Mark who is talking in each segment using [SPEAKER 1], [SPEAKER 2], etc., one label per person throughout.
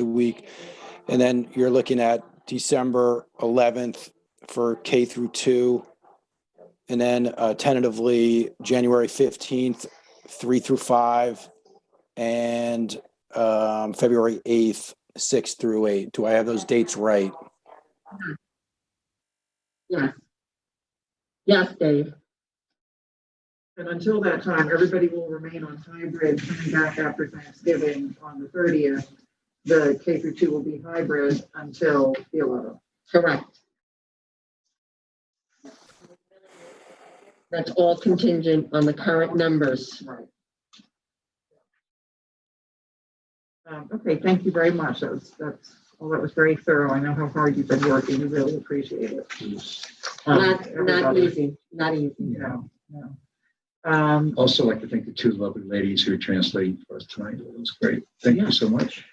[SPEAKER 1] a week. And then you're looking at December 11th for K through two. And then uh, tentatively, January 15th, three through five, and um, February 8th, six through eight. Do I have those dates right?
[SPEAKER 2] Yes. Yes, Dave.
[SPEAKER 3] And until that time, everybody will remain on hybrid, coming back after Thanksgiving on the thirtieth. The K through two will be hybrid until the eleventh.
[SPEAKER 2] Correct. That's all contingent on the current numbers.
[SPEAKER 3] Right. Um, okay, thank you very much. That was, that's, well, that was very thorough. I know how hard you've been working. We really appreciate it. Um,
[SPEAKER 2] Not, not
[SPEAKER 3] everybody,
[SPEAKER 2] easy, not easy.
[SPEAKER 3] No, no. Um,
[SPEAKER 4] Also like to thank the two lovely ladies who are translating for us tonight. It was great. Thank you so much.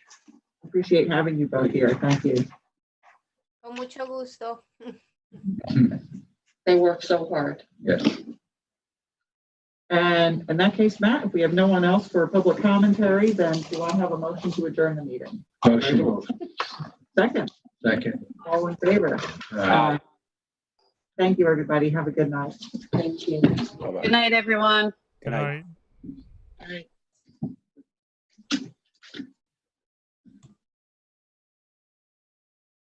[SPEAKER 3] appreciate having you both here. Thank you.
[SPEAKER 5] Con mucho gusto.
[SPEAKER 2] They work so hard.
[SPEAKER 4] Yes.
[SPEAKER 3] And in that case, Matt, if we have no one else for public commentary, then do I have a motion to adjourn the meeting?
[SPEAKER 4] Motion moved.
[SPEAKER 3] Second,
[SPEAKER 4] Second.
[SPEAKER 3] all in favor?
[SPEAKER 4] Uh,
[SPEAKER 3] Thank you, everybody. Have a good night.
[SPEAKER 2] Thank you.
[SPEAKER 1] Bye-bye.
[SPEAKER 6] Good night, everyone.
[SPEAKER 1] Good night.
[SPEAKER 7] Good night.